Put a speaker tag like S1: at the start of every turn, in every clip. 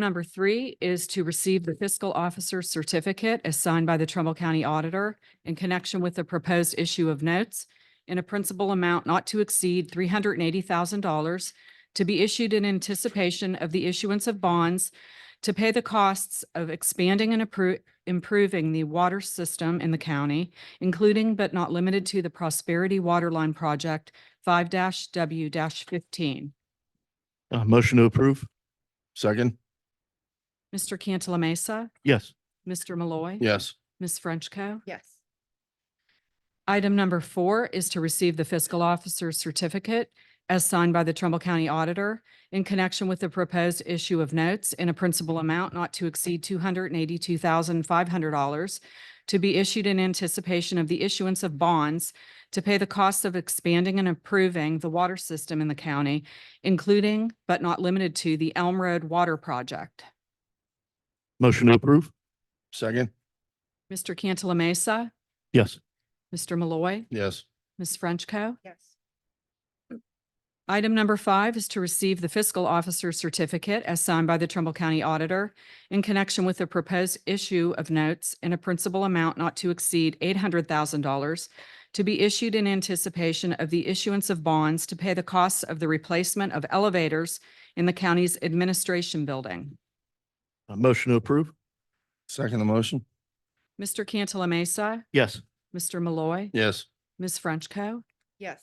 S1: Number three is to receive the fiscal officer certificate as signed by the Trumbull County Auditor in connection with the proposed issue of notes in a principal amount not to exceed three hundred and eighty thousand dollars to be issued in anticipation of the issuance of bonds to pay the costs of expanding and appro- improving the water system in the county, including but not limited to the Prosperity Waterline Project five W fifteen.
S2: Uh, motion to approve. Second.
S1: Mr. Cantala Mesa,
S2: Yes.
S1: Mr. Malloy.
S2: Yes.
S1: Ms. Frenchco.
S3: yes,
S1: Item number four is to receive the fiscal officer's certificate as signed by the Trumbull County Auditor in connection with the proposed issue of notes in a principal amount not to exceed two hundred and eighty-two thousand five hundred dollars to be issued in anticipation of the issuance of bonds to pay the cost of expanding and improving the water system in the county, including but not limited to the Elm Road Water Project.
S2: Motion to approve. Second.
S1: Mr. Cantala Mesa,
S2: Yes.
S1: Mr. Malloy,
S2: Yes.
S1: Ms. Frenchco.
S3: yes,
S1: Item number five is to receive the fiscal officer certificate as signed by the Trumbull County Auditor in connection with the proposed issue of notes in a principal amount not to exceed eight hundred thousand dollars to be issued in anticipation of the issuance of bonds to pay the costs of the replacement of elevators in the county's administration building.
S2: Uh, motion to approve. Second the motion.
S1: Mr. Cantala Mesa,
S2: Yes.
S1: Mr. Malloy,
S2: Yes.
S1: Ms. Frenchco.
S3: yes,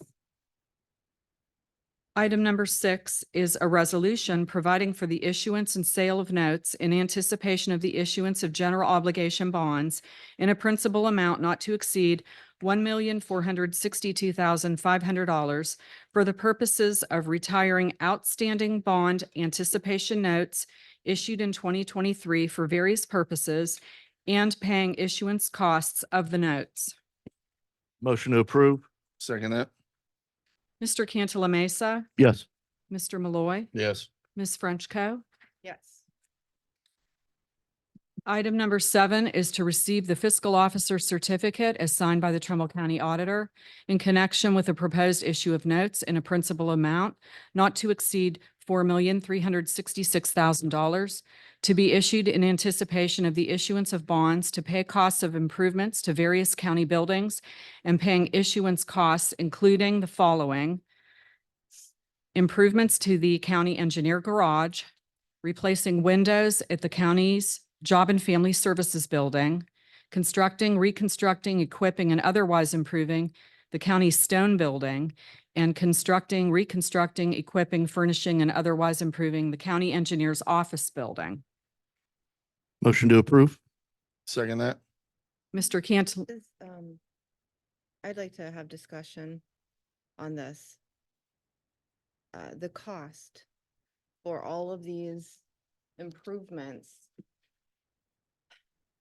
S1: Item number six is a resolution providing for the issuance and sale of notes in anticipation of the issuance of general obligation bonds in a principal amount not to exceed one million four hundred sixty-two thousand five hundred dollars for the purposes of retiring outstanding bond anticipation notes issued in twenty twenty-three for various purposes and paying issuance costs of the notes.
S2: Motion to approve. Second that.
S1: Mr. Cantala Mesa,
S2: Yes.
S1: Mr. Malloy,
S2: Yes.
S1: Ms. Frenchco.
S3: yes,
S1: Item number seven is to receive the fiscal officer certificate as signed by the Trumbull County Auditor in connection with a proposed issue of notes in a principal amount not to exceed four million, three hundred sixty-six thousand dollars to be issued in anticipation of the issuance of bonds to pay costs of improvements to various county buildings and paying issuance costs, including the following. Improvements to the county engineer garage, replacing windows at the county's Job and Family Services Building, constructing, reconstructing, equipping, and otherwise improving the county's stone building, and constructing, reconstructing, equipping, furnishing, and otherwise improving the county engineer's office building.
S2: Motion to approve. Second that.
S1: Mr. Cantal,
S3: This, um, I'd like to have discussion on this. Uh, the cost for all of these improvements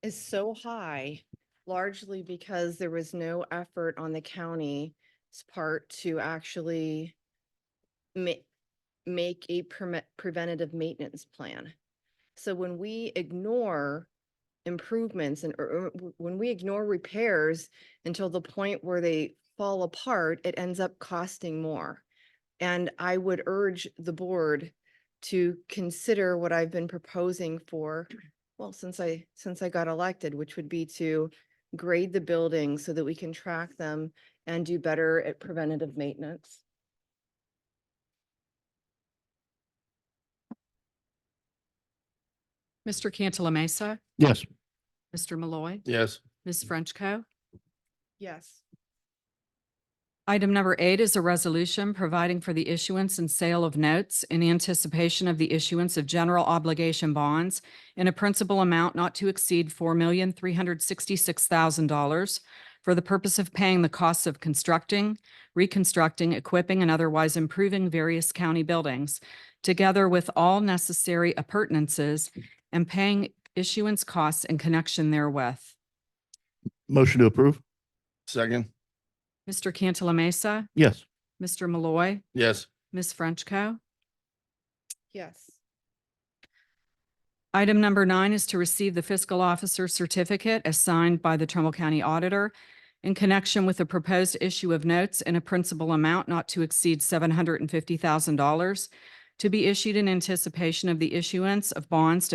S3: is so high largely because there was no effort on the county's part to actually ma- make a permit preventative maintenance plan. So when we ignore improvements and or- or w- when we ignore repairs until the point where they fall apart, it ends up costing more. And I would urge the board to consider what I've been proposing for, well, since I, since I got elected, which would be to grade the buildings so that we can track them and do better at preventative maintenance.
S1: Mr. Cantala Mesa,
S2: Yes.
S1: Mr. Malloy,
S2: Yes.
S1: Ms. Frenchco.
S3: Yes,
S1: Item number eight is a resolution providing for the issuance and sale of notes in anticipation of the issuance of general obligation bonds in a principal amount not to exceed four million, three hundred sixty-six thousand dollars for the purpose of paying the costs of constructing, reconstructing, equipping, and otherwise improving various county buildings, together with all necessary appurtenances and paying issuance costs in connection therewith.
S2: Motion to approve. Second.
S1: Mr. Cantala Mesa,
S2: Yes.
S1: Mr. Malloy,
S2: Yes.
S1: Ms. Frenchco.
S3: yes,
S1: Item number nine is to receive the fiscal officer certificate as signed by the Trumbull County Auditor in connection with the proposed issue of notes in a principal amount not to exceed seven hundred and fifty thousand dollars to be issued in anticipation of the issuance of bonds to